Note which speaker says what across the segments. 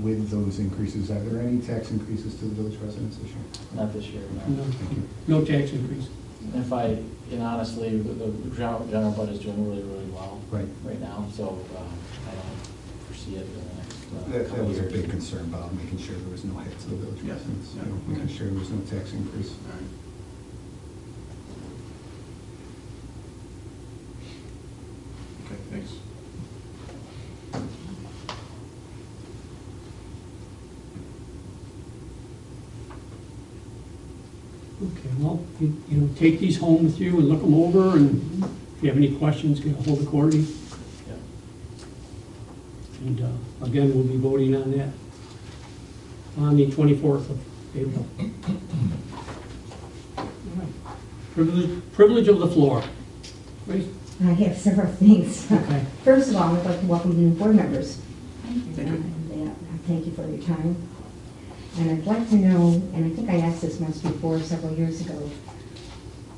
Speaker 1: with those increases? Are there any tax increases to the village residents this year?
Speaker 2: Not this year, no.
Speaker 3: No,
Speaker 1: Thank you.
Speaker 3: no tax increase.
Speaker 2: And if I, and honestly, the the general general fund is doing really, really well
Speaker 1: Right.
Speaker 2: right now, so um, I don't foresee it in the next. uh,
Speaker 1: That, that
Speaker 2: couple
Speaker 1: was a
Speaker 2: years.
Speaker 1: big concern, Bob, making sure there was no hit to the village
Speaker 4: Yes.
Speaker 1: residents, you
Speaker 4: Yeah.
Speaker 1: know, making sure there was no tax increase.
Speaker 4: All right. Okay, thanks.
Speaker 3: Okay, well, you you know, take these home with you and look them over, and if you have any questions, get ahold of Courtney.
Speaker 2: Yeah.
Speaker 3: And uh, again, we'll be voting on that on the 24th of April. All right. Privilege privilege of the floor. Grace?
Speaker 5: I have several things.
Speaker 3: Okay.
Speaker 5: First of all, I'd like to welcome the new board members.
Speaker 4: Thank you.
Speaker 5: And, uh, Thank you for your time. And I'd like to know, and I think I asked this once before, several years ago,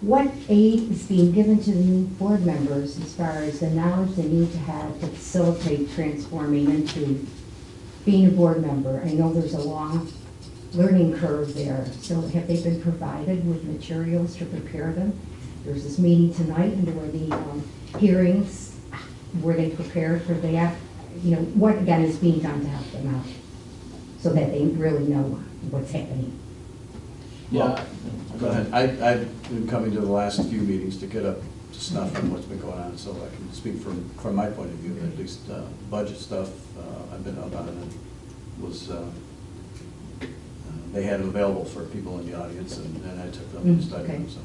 Speaker 5: what aid is being given to the new board members as far as the knowledge they need to have to facilitate transforming into being a board member? I know there's a long learning curve there, so have they been provided with materials to prepare them? There's this meeting tonight, and there were the um, hearings, were they prepared for that? You know, what again is being done to help them out, so that they really know what's happening?
Speaker 2: Yeah.
Speaker 4: Go ahead. I, I've been coming to the last few meetings to get up to snuff on what's been going on, so I can speak from, from my point of view, at least uh, budget stuff, uh, I've been up on it, was, uh, uh, they had it available for people in the audience, and then I took them and
Speaker 5: Mm,
Speaker 4: studied them,
Speaker 5: okay.
Speaker 4: so.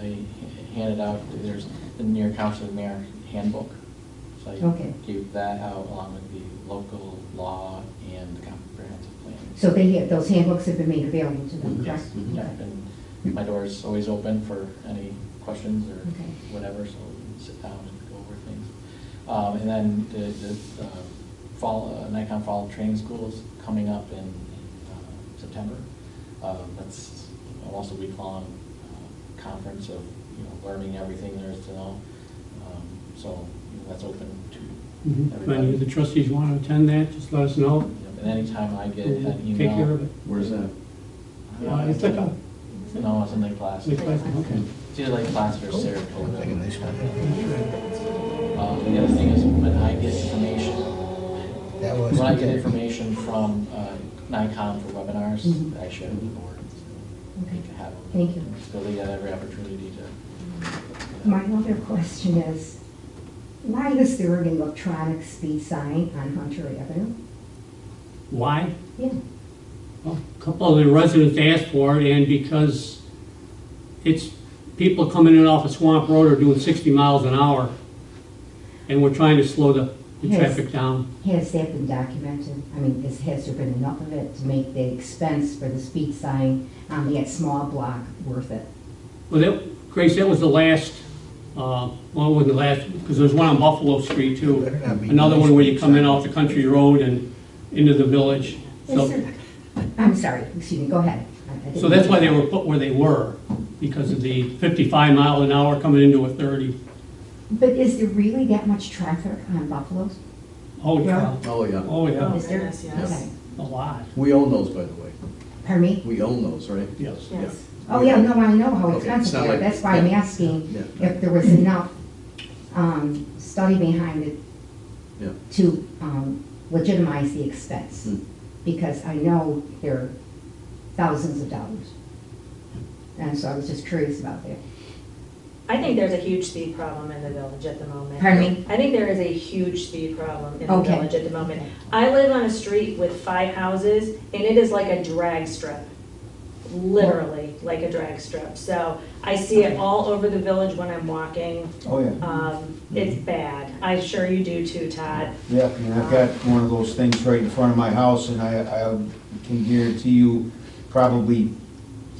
Speaker 2: They handed out, there's the near council of mayor handbook. So
Speaker 5: Okay.
Speaker 2: I gave that out along with the local law and the comprehensive plan.
Speaker 5: So they, have- those handbooks have been made available to them, correct?
Speaker 2: Yes, mm-hmm. yeah, and my door is always open for any questions or
Speaker 5: Okay.
Speaker 2: whatever, so we can sit down and go over things. Um, and then the, the, uh, fall, uh, Nikon Fall Training School is coming up in, uh, September. Uh, that's almost a week-long, uh, conference of, you know, learning everything there is to know. Um, So, you know, that's open
Speaker 3: Mhm.
Speaker 2: to
Speaker 3: If any of the
Speaker 2: everybody.
Speaker 3: trustees want to attend that, just let us know.
Speaker 2: Yep, And anytime I get
Speaker 3: We'll
Speaker 2: an email.
Speaker 3: Take care of it.
Speaker 4: Where's that?
Speaker 3: Uh, It's like a,
Speaker 2: No, it's in the class.
Speaker 3: it's like, okay.
Speaker 2: It's either like plaster or Saratoga. Um, The other thing is when I get information,
Speaker 6: That was.
Speaker 2: when I get information from uh, Nikon for webinars, I share with the board.
Speaker 5: Mm-hmm. Okay.
Speaker 2: To have them.
Speaker 5: Thank you.
Speaker 2: So they got every opportunity to.
Speaker 5: My other question is, why is there an electronic speed sign on Hunter Avenue?
Speaker 3: Why?
Speaker 5: Yeah,
Speaker 3: Well, A couple of the residents asked for it, and because it's, people coming in off of Swamp Road are doing 60 miles an hour, and we're trying to slow the, the
Speaker 5: Yes.
Speaker 3: traffic down.
Speaker 5: has that been documented? I mean, is, has there been enough of it to make the expense for the speed sign on that small block worth it?
Speaker 3: Well, that, Grace, that was the last, uh, well, it wasn't the last, because there's one on Buffalo Street too.
Speaker 6: Better not be
Speaker 3: Another one where you
Speaker 6: nice.
Speaker 3: come in off the country road and into the village.
Speaker 5: Is
Speaker 3: So,
Speaker 5: there- I'm sorry, excuse me, go ahead. I- I didn't-
Speaker 3: so that's why they were put where they were, because of the 55 mile an hour coming into a 30.
Speaker 5: But is there really that much traffic on Buffalo's?
Speaker 3: Oh, yeah,
Speaker 5: Yeah.
Speaker 4: Oh, yeah.
Speaker 3: oh, yeah,
Speaker 5: Is there?
Speaker 7: yes, yes.
Speaker 5: Okay.
Speaker 3: a lot,
Speaker 4: We own those, by the way.
Speaker 5: Pardon me?
Speaker 4: We own those, right?
Speaker 3: yes.
Speaker 7: Yes.
Speaker 5: Oh, yeah, no, I know how
Speaker 4: Okay, it's
Speaker 5: expensive
Speaker 4: not
Speaker 5: they are.
Speaker 4: like-
Speaker 5: That's why I'm
Speaker 4: yeah,
Speaker 5: asking
Speaker 4: yeah, yeah.
Speaker 5: if there was enough um, study behind it
Speaker 4: Yeah.
Speaker 5: to um, legitimize the expense.
Speaker 4: Hmm.
Speaker 5: Because I know they're thousands of dollars. And so I was just curious about that.
Speaker 7: I think there's a huge speed problem in the village at the moment.
Speaker 5: Pardon me?
Speaker 7: I think there is a huge speed problem in the
Speaker 5: Okay.
Speaker 7: village at the moment. I live on a street with five houses, and it is like a drag strip. Literally, like a drag strip. So I see it all over the village when I'm walking.
Speaker 8: Oh, yeah. Mm-hmm.
Speaker 7: Um, It's bad. I'm sure you do too, Todd. Um,
Speaker 8: Yeah, and I've got one of those things right in front of my house, and I, I can guarantee you, probably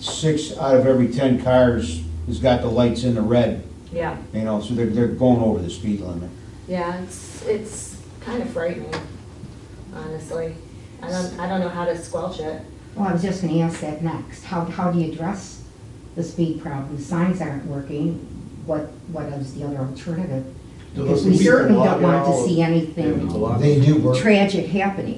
Speaker 8: six out of every ten cars has got the lights in the red,
Speaker 7: Yeah,
Speaker 8: you know, so they're, they're going over the speed limit.
Speaker 7: yeah, it's, it's kind of frightening, honestly. I don't, I don't know how to squelch it.
Speaker 5: Well, I was just gonna ask that next. How, how do you address the speed problem? Signs aren't working. What, what is the other alternative?
Speaker 6: Do
Speaker 5: Because
Speaker 6: those
Speaker 5: we
Speaker 6: people
Speaker 5: certainly
Speaker 6: walk
Speaker 5: don't want to
Speaker 6: out?
Speaker 5: see
Speaker 4: Yeah, it's a
Speaker 5: anything
Speaker 4: lot.
Speaker 6: They do work.
Speaker 5: tragic happening.